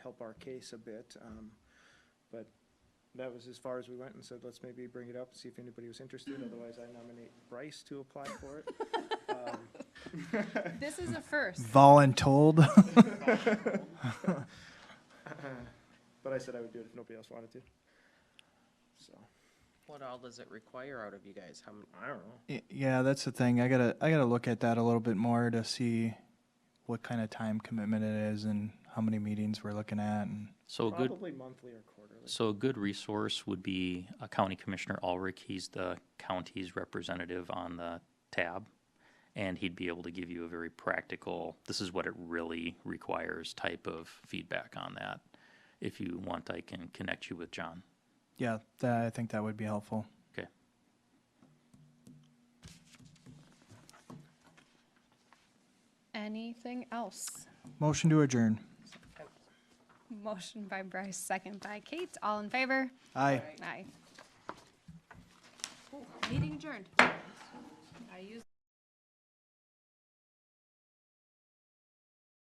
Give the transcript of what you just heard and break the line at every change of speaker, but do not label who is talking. help our case a bit. Um, But that was as far as we went and said, let's maybe bring it up, and see if anybody was interested. Otherwise, I nominate Bryce to apply for it. Um,
This is a first.
Voluntold.
But I said I would do it if nobody else wanted to. So,
What all does it require out of you guys? How many?
I don't know.
Y- Yeah, that's the thing. I gotta I gotta look at that a little bit more to see what kind of time commitment it is and how many meetings we're looking at and
So a good,
Probably monthly or quarterly.
so a good resource would be uh, County Commissioner Ulrich. He's the county's representative on the tab. And he'd be able to give you a very practical, this is what it really requires type of feedback on that. If you want, I can connect you with John.
yeah, that, I think that would be helpful.
Okay.
Anything else?
Motion to adjourn.
Motion by Bryce, second by Kate. All in favor?
Aye.
Aye. Meeting adjourned. I use.